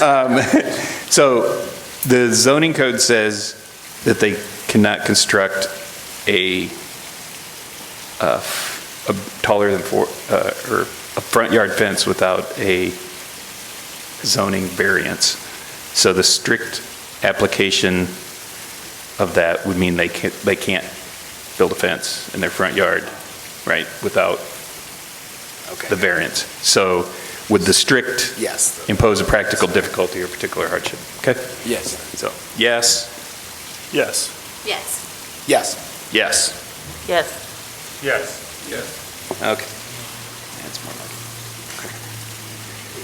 Um, So the zoning code says that they cannot construct a, uh, f- a taller than four, uh, or a front yard fence without a zoning variance. So the strict application of that would mean they can't, they can't build a fence in their front yard, right, without the Okay. variance. So would the strict Yes, impose a practical difficulty or particular hardship. Okay? yes, So, yes, Yes. Yes. yes. yes. Yes. Yes. Okay. That's more like it. Uh,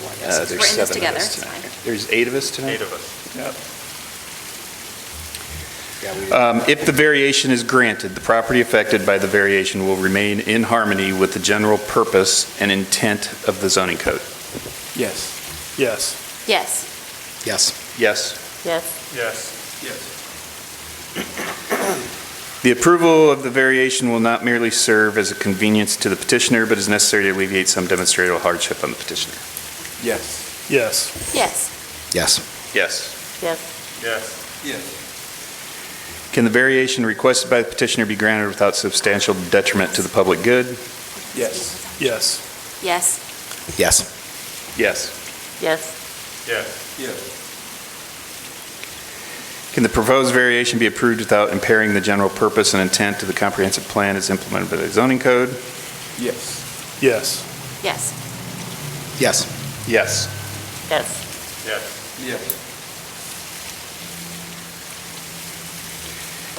We're in There's this seven of together, us it's tonight. fine. There's eight of us tonight? Eight of us. Yeah, we- Um, If the variation is granted, the property affected by the variation will remain in harmony with the general purpose and intent of the zoning code. Yes. Yes. Yes. Yes. Yes. Yes. Yes. The approval of the variation will not merely serve as a convenience to the petitioner, but is necessary to alleviate some demonstrable hardship on the petitioner. Yes. Yes. Yes. Yes. Yes. Yes. Yes. Can the variation requested by the petitioner be granted without substantial detriment to the public good? Yes. Yes. Yes. Yes. Yes. Yes. Yes. Can the proposed variation be approved without impairing the general purpose and intent of the comprehensive plan as implemented by the zoning code? Yes. Yes. Yes. Yes. Yes. Yes. Yes.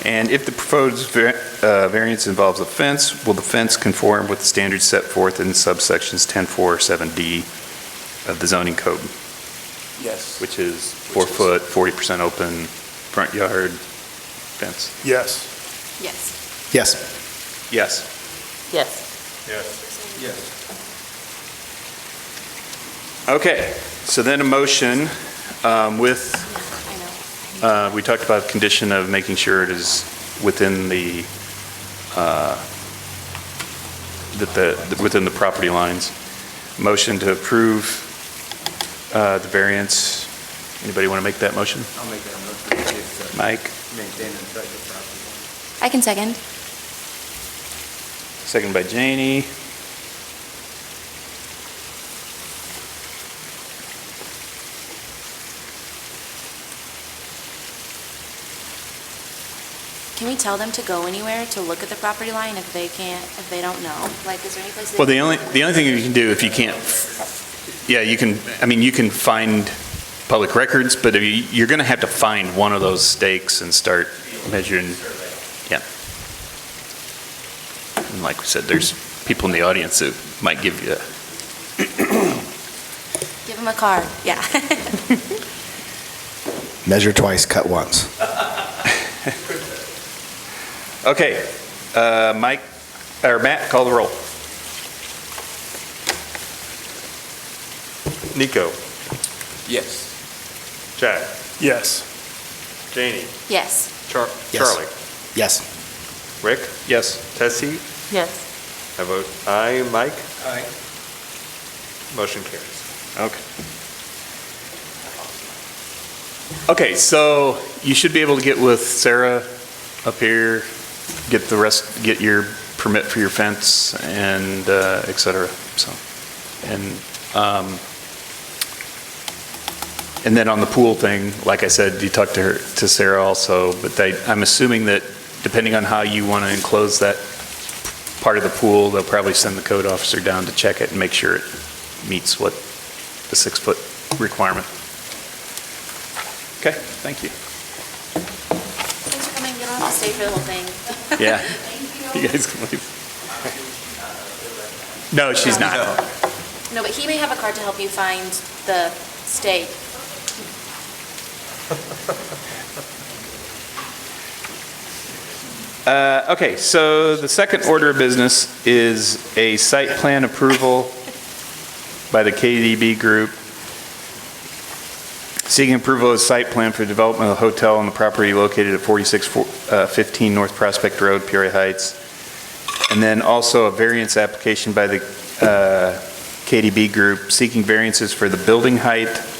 And if the proposed var- uh, variance involves a fence, will the fence conform with the standards set forth in subsections 10.4 or 7D of the zoning code, Yes. which is four Which is- foot, 40% open, front yard fence? Yes. Yes. Yes. Yes. Yes. Yes. Okay, so then a motion um, with, I know. uh, we talked about condition of making sure it is within the, uh, that the, within the property lines. Motion to approve uh, the variance. Anybody want to make that motion? I'll make that motion. It's, uh, Mike, Maintain and protect the property. I can second. second by Janie. Can we tell them to go anywhere to look at the property line if they can't, if they don't know? Like, is there any place? they- Well, the only, the only thing you can do if you can't, yeah, you can, I mean, you can find public records, but if you- you're going to have to find one of those stakes and start measuring, yeah. And like we said, there's people in the audience that might give you, a- Give them a card. Yeah. Measure twice, cut once. okay, uh, Mike, or Matt, call the roll. Nico. Yes. Jack. Yes. Janie. Yes. Char- Yes. Charlie. Yes. Rick. Yes. Tessie. Yes. I vote aye. Mike. Aye. Motion carries. Okay. Okay, so you should be able to get with Sarah up here, get the rest, get your permit for your fence and uh, et cetera, so. And, um, and then on the pool thing, like I said, you talked to her, to Sarah also, but they, I'm assuming that depending on how you want to enclose that part of the pool, they'll probably send the code officer down to check it and make sure it meets what the six-foot requirement. Okay, thank you. Thanks for coming. You don't have to stay for the whole thing. Yeah. Thank You guys can leave. No, she's not. No, but he may have a card to help you find the stake. Uh, Okay, so the second order of business is a site plan approval by the KDB Group seeking approval of site plan for development of a hotel on the property located at 4615 North Prospect Road, Peoria Heights. And then also a variance application by the uh, KDB Group seeking variances for the building height,